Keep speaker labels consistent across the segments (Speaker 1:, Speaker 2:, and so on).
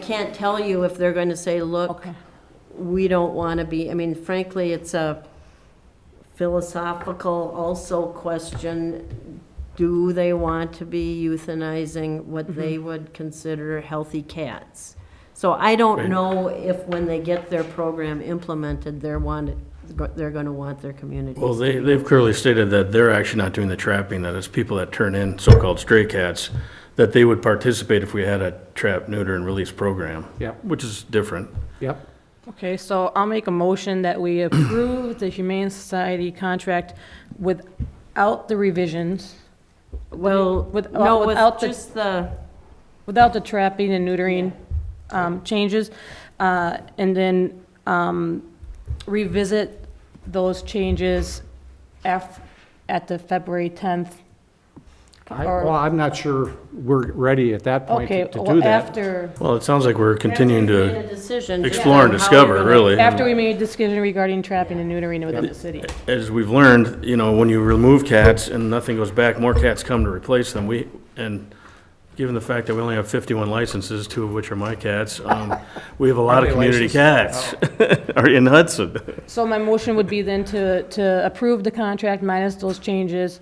Speaker 1: can't tell you if they're going to say, look,
Speaker 2: Okay.
Speaker 1: we don't want to be, I mean, frankly, it's a philosophical also question. Do they want to be euthanizing what they
Speaker 3: Mm-hmm.
Speaker 1: would consider healthy cats? So I don't know if when they get their program implemented, they're want, they're going to want their community.
Speaker 3: Well, they, they've clearly stated that they're actually not doing the trapping, that it's people that turn in so-called stray cats, that they would participate if we had a trap, neuter, and release program.
Speaker 4: Yep.
Speaker 3: Which is different.
Speaker 4: Yep,
Speaker 2: Okay, so I'll make a motion that we approve the Humane Society contract without the revisions,
Speaker 1: Well,
Speaker 2: With- uh,
Speaker 1: no, with
Speaker 2: without the-
Speaker 1: just the,
Speaker 2: without the trapping and neutering um, changes, uh, and then um, revisit those changes af, at the February 10th.
Speaker 4: I,
Speaker 2: Or-
Speaker 4: well, I'm not sure we're ready at that point
Speaker 2: Okay,
Speaker 4: to to do
Speaker 2: well,
Speaker 4: that.
Speaker 2: after,
Speaker 3: Well, it sounds like we're continuing
Speaker 1: Made
Speaker 3: to
Speaker 1: a decision.
Speaker 3: explore and
Speaker 1: How
Speaker 3: discover,
Speaker 1: you're
Speaker 3: really.
Speaker 2: after we made a decision regarding trapping and neutering within the city.
Speaker 3: As we've learned, you know, when you remove cats and nothing goes back, more cats come to replace them. We, and given the fact that we only have fifteen licenses, two of which are my cats, um, we have a lot of
Speaker 4: How many
Speaker 3: community cats are in Hudson.
Speaker 2: So my motion would be then to, to approve the contract minus those changes.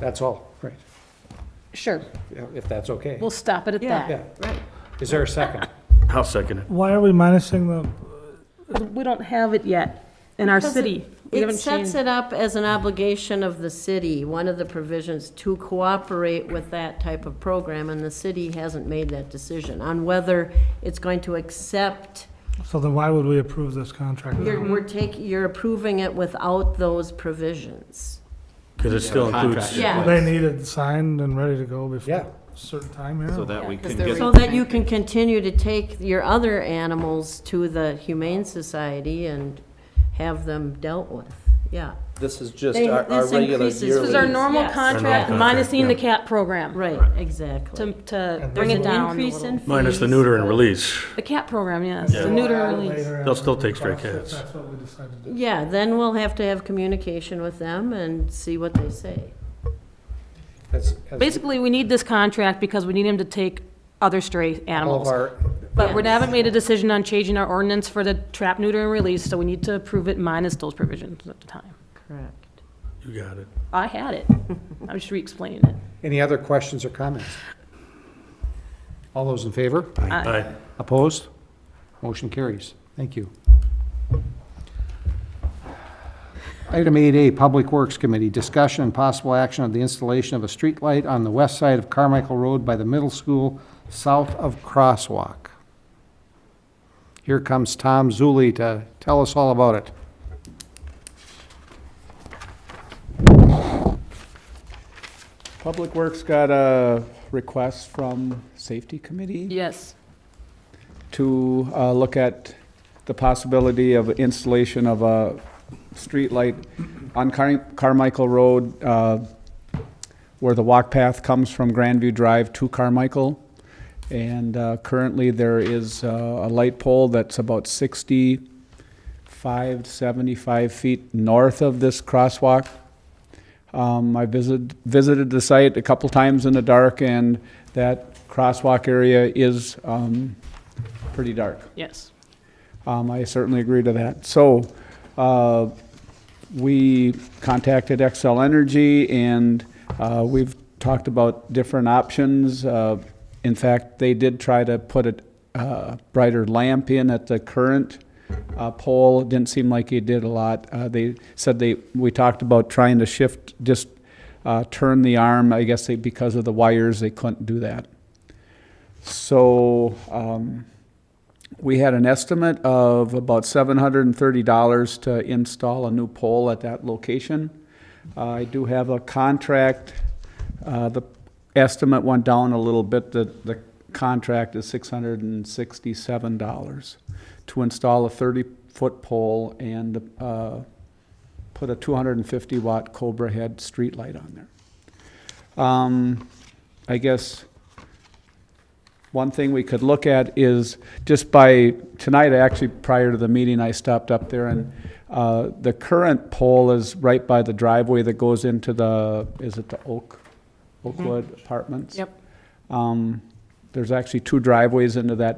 Speaker 4: That's all, right,
Speaker 2: Sure,
Speaker 4: Yeah, if that's okay.
Speaker 2: we'll stop it at
Speaker 1: Yeah.
Speaker 2: that.
Speaker 4: Yeah. Is there a second?
Speaker 3: I'll second it.
Speaker 5: Why are we minusing the,
Speaker 2: We don't have it yet in our
Speaker 1: Because
Speaker 2: city. We
Speaker 1: It
Speaker 2: haven't
Speaker 1: sets
Speaker 2: changed.
Speaker 1: it up as an obligation of the city, one of the provisions, to cooperate with that type of program, and the city hasn't made that decision on whether it's going to accept,
Speaker 5: so then why would we approve this contract?
Speaker 1: you're,
Speaker 2: Mm-hmm.
Speaker 1: we're taking, you're approving it without those provisions.
Speaker 3: Because it still includes.
Speaker 1: Yeah.
Speaker 5: They need it signed and ready to go before
Speaker 4: Yeah.
Speaker 5: a certain time here?
Speaker 6: So that
Speaker 1: Oh,
Speaker 6: we can get,
Speaker 1: So that you can continue to take your other animals to the Humane Society and have them dealt with, yeah,
Speaker 6: this is just
Speaker 1: They-
Speaker 6: our our
Speaker 1: this
Speaker 6: regular
Speaker 1: increases-
Speaker 6: yearly.
Speaker 2: This is our normal
Speaker 1: Yes.
Speaker 2: contract
Speaker 3: Our normal
Speaker 2: minusing the
Speaker 3: contract,
Speaker 2: cat program
Speaker 1: right,
Speaker 2: to,
Speaker 1: exactly.
Speaker 2: to
Speaker 5: And
Speaker 2: bring it
Speaker 1: There's an
Speaker 2: down a
Speaker 1: increase in
Speaker 2: little.
Speaker 3: Minus the
Speaker 1: fees,
Speaker 3: neuter and
Speaker 1: but-
Speaker 3: release.
Speaker 2: The cat program, yes,
Speaker 3: Yeah.
Speaker 2: the neuter release.
Speaker 3: They'll still take stray cats.
Speaker 5: That's what we decided to do.
Speaker 1: Yeah, then we'll have to have communication with them and see what they say.
Speaker 4: Has- has
Speaker 2: Basically, we need this contract because we need him to take other stray
Speaker 4: All of
Speaker 2: animals.
Speaker 4: our,
Speaker 2: But we haven't made a decision on changing our ordinance for the trap, neuter, and release, so we need to approve it minus those provisions at the time.
Speaker 1: Correct.
Speaker 3: You got it.
Speaker 2: I had it. I was just re-explaining it.
Speaker 4: any other questions or comments? All those in favor?
Speaker 3: Aye.
Speaker 4: Opposed? Motion carries. Thank you. Item 8A, Public Works Committee, discussion and possible action of the installation of a streetlight on the west side of Carmichael Road by the middle school, south of Crosswalk. Here comes Tom Zuli to tell us all about it.
Speaker 7: Public Works got a request from Safety Committee
Speaker 2: Yes.
Speaker 7: to uh, look at the possibility of installation of a streetlight on Car- Carmichael Road, uh, where the walk path comes from Grandview Drive to Carmichael. And uh, currently, there is uh, a light pole that's about 65, 75 feet north of this crosswalk. Um, I visited, visited the site a couple times in the dark, and that crosswalk area is um, pretty dark.
Speaker 2: Yes.
Speaker 7: Um, I certainly agree to that. So, uh, we contacted XL Energy and, uh, we've talked about different options. Uh, in fact, they did try to put a, uh, brighter lamp in at the current, uh, pole. It Didn't seem like it did a lot. Uh, they said they, we talked about trying to shift, just, uh, turn the arm. I guess they, because of the wires, they couldn't do that. So, um, we had an estimate of about seven hundred and thirty dollars to install a new pole at that location. Uh, I do have a contract, uh, the estimate went down a little bit, the, the contract is six hundred and sixty-seven dollars to install a thirty-foot pole and, uh, put a two hundred and fifty watt Cobra head streetlight on there. Um, I guess one thing we could look at is, just by, tonight, actually, prior to the meeting, I stopped up there, and uh, the current pole is right by the driveway that goes into the, is it the Oak, Oakwood Apartments?
Speaker 2: Yep.
Speaker 7: Um, There's actually two driveways into that